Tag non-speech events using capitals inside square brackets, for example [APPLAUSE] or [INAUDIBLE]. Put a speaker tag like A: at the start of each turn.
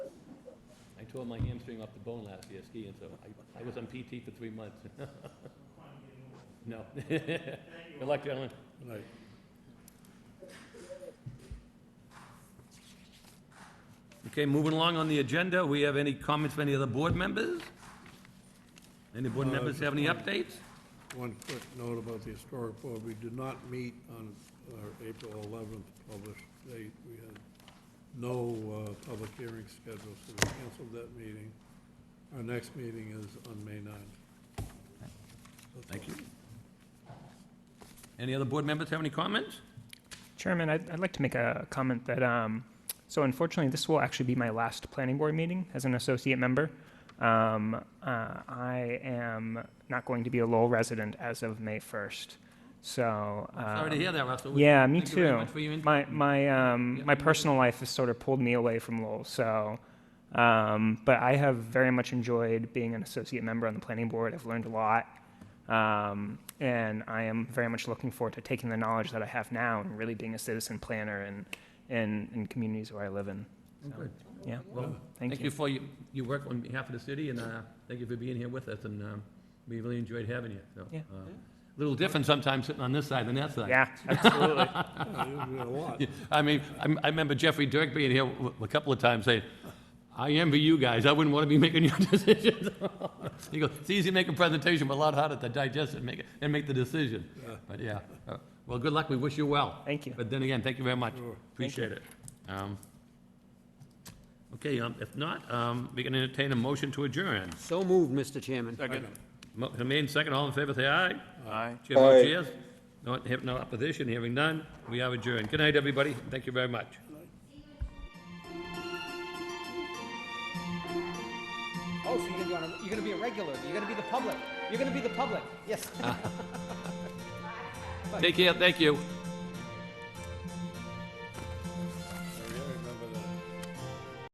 A: tore my hamstring off the bone last year skiing, so I, I was on PT for three months. [LAUGHS] No. [LAUGHS] Good luck, gentlemen.
B: Right.
A: Okay, moving along on the agenda, we have any comments from any other board members? Any board
B: Uh,
A: members have any
B: just
A: updates?
B: One quick note about the historic board, we did not meet on our April 11th published date. We had no uh, public hearing scheduled, so we canceled that meeting. Our next meeting is on May 9th.
A: Thank you. Any other board members have any comments?
C: Chairman, I'd, I'd like to make a comment that, um, so unfortunately, this will actually be my last planning board meeting as an associate member. Um, uh, I am not going to be a Lowell resident as of May 1st, so.
A: Sorry to
C: um,
A: hear that, Russell.
C: Yeah, me
A: Thank you very
C: too.
A: much for your input.
C: My, my, um,
A: Yeah,
C: my
A: I'm good.
C: personal life has sort of pulled me away from Lowell, so, um, but I have very much enjoyed being an associate member on the planning board. I've learned a lot. Um, and I am very much looking forward to taking the knowledge that I have now and really being a citizen planner in, in, in communities where I live in. So,
A: Okay.
C: Yeah,
A: Well,
C: thank
A: Oh, Thank you
C: you.
A: for your, your work on behalf of the city, and uh, thank you for being here with us, and um, we really enjoyed having you, so.
C: Yeah.
A: uh, Little different sometimes sitting on this side than that side.
C: Yeah, absolutely.
B: Yeah, you did a lot.
A: [LAUGHS] I mean, I'm- I remember Jeffrey Dirk being here w- a couple of times saying, "I envy you guys, I wouldn't want to be making your [LAUGHS] decisions." He goes, "It's easy to make a presentation, but a lot harder to digest and make, it- and make the decision." But yeah, uh, well, good luck, we wish you well.
C: Thank you.
A: But then again, thank you very much.
B: Sure.
A: Appreciate it. Um, Okay, um, if not, um, we can entertain a motion to adjourn.
D: So moved, Mr. Chairman.
A: Mo- Remain second, all in favor, say aye.
E: Aye.
A: Chair votes yes. No, have no opposition, hearing none, we are adjourned. Good night, everybody, thank you very much.
D: Oh, so you're gonna be on, a- you're gonna be a regular, you're gonna be the public, you're gonna be the public, yes.
A: Take care, thank you.